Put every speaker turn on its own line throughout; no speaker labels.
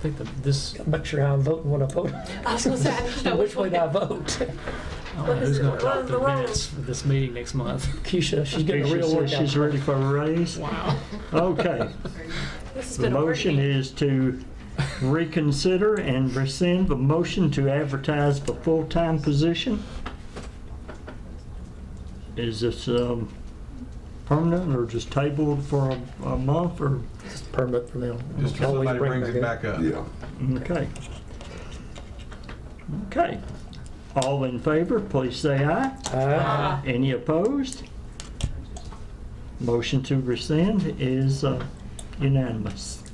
think that this,
I'm not sure how I'm voting when I vote.
I was gonna say, I don't know
Which way do I vote?
I don't know
What is
who's
it?
going to
What
talk
is
the
the role?
minutes of this meeting next month.
Keisha, she's getting a
Keisha
real
says she's
workout.
ready for a raise.
Wow.
Okay,
This has
the
been a
motion
working-
is to reconsider and rescind the motion to advertise for full-time position. Is this um, permanent or just tabled for a- a month or,
It's permanent for them.
Just till
Always
somebody
bring
brings it back up.
Yeah.
okay. Okay. All in favor, please say aye.
Aye.
Ah,
Any opposed? Motion to rescind is uh, unanimous.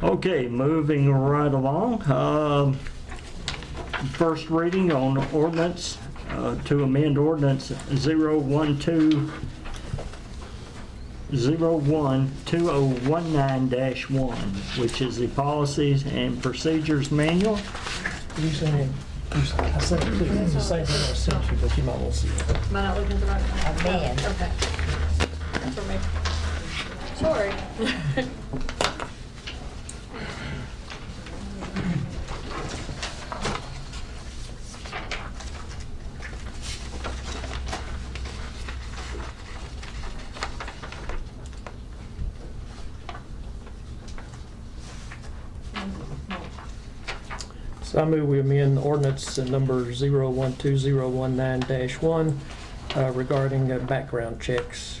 Okay, moving right along. um, First reading on ordinance uh, to amend ordinance 012 012019-1, which is the Policies and Procedures Manual.
You sent him, you s- I sent it to you, it's the same thing I sent you, but you might want to see it.
Am I not looking at the right one? I
man.
Okay. For me. Sorry.
So I move we amend ordinance number 012019-1 uh, regarding uh, background checks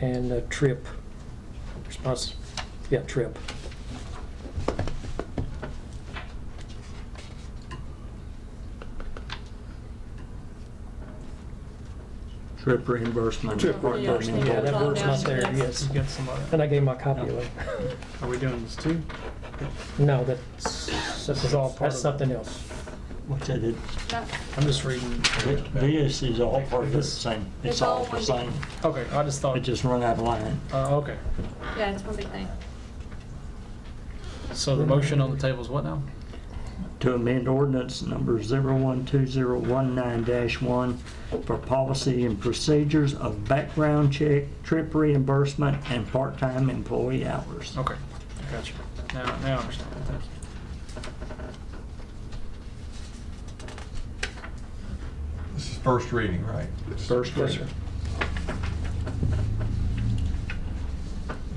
and uh, trip response, yeah, trip.
Trip reimbursement.
Trip reimbursement, yeah, that word's not there, yes.
He's got somebody.
And I gave my copy away.
Are we doing this too?
No, that's, that's
all part
that's
of-
something else.
What's that? It-
I'm just reading.
This is all part of the same, it's all the same,
Okay, I just
it
thought,
just run out of line.
uh, okay.
Yeah, it's one big thing.
So the motion on the table is what now?
To amend ordinance number 012019-1 for policy and procedures of background check, trip reimbursement, and part-time employee hours.
Okay, gotcha. Now, now I understand. Thank you.
This is first reading, right?
First reading.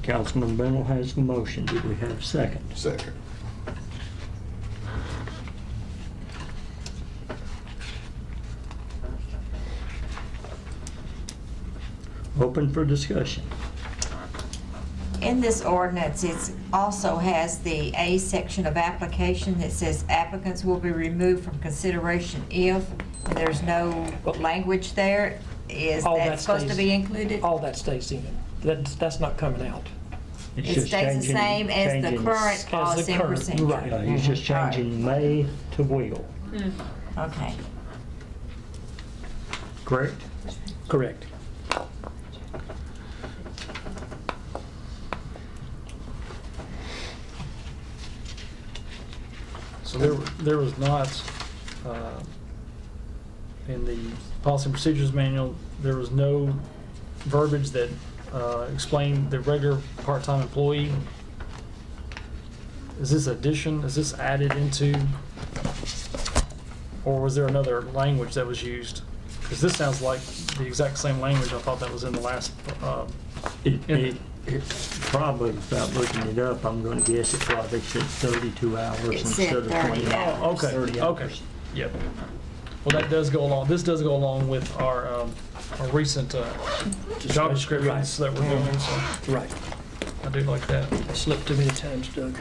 Councilman Bennell has the motion, do we have a second?
Second.
Open for discussion.
In this ordinance, it also has the A section of application that says applicants will be removed from consideration if, and there's no language there. Is
All that
that supposed to
stays-
be included?
All that stays in. That's, that's not coming out.
It's
It
just
stays the
changing-
same as the
changing-
current
the
policy and
current,
procedure? Mm-hmm.
right.
Yeah, He's just
All right.
changing may to will,
Okay.
correct?
Correct.
So there, there was not, uh, in the policy and procedures manual, there was no verbiage that uh, explained the regular part-time employee. Is this addition, is this added into, or was there another language that was used? Because this sounds like the exact same language I thought that was in the last, uh,
It,
Yeah.
it, it probably, without looking it up, I'm gonna guess it probably said thirty-two hours
It
instead
said
of
30
twenty
hours.
hours.
okay,
30
okay,
hours.
yep. Well, that does go along, this does go along with our um, our recent uh, job descriptions that we're doing, so
Right.
I do like that.
I slipped too many times, Doug.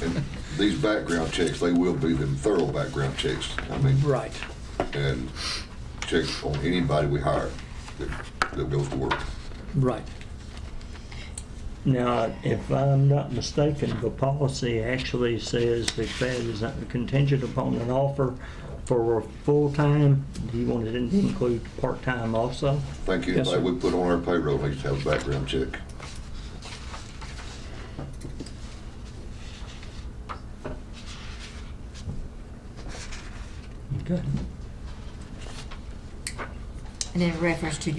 And these background checks, they will be them thorough background checks. I mean,
Right.
and checks on anybody we hire that, that goes to work.
Right.
Now, if I'm not mistaken, the policy actually says that that is contingent upon an offer for a full-time. Do you want it to include part-time also?
Thank you.
Yes, sir.
Anybody we put on our payroll needs to have a background check.
Okay.
And in reference to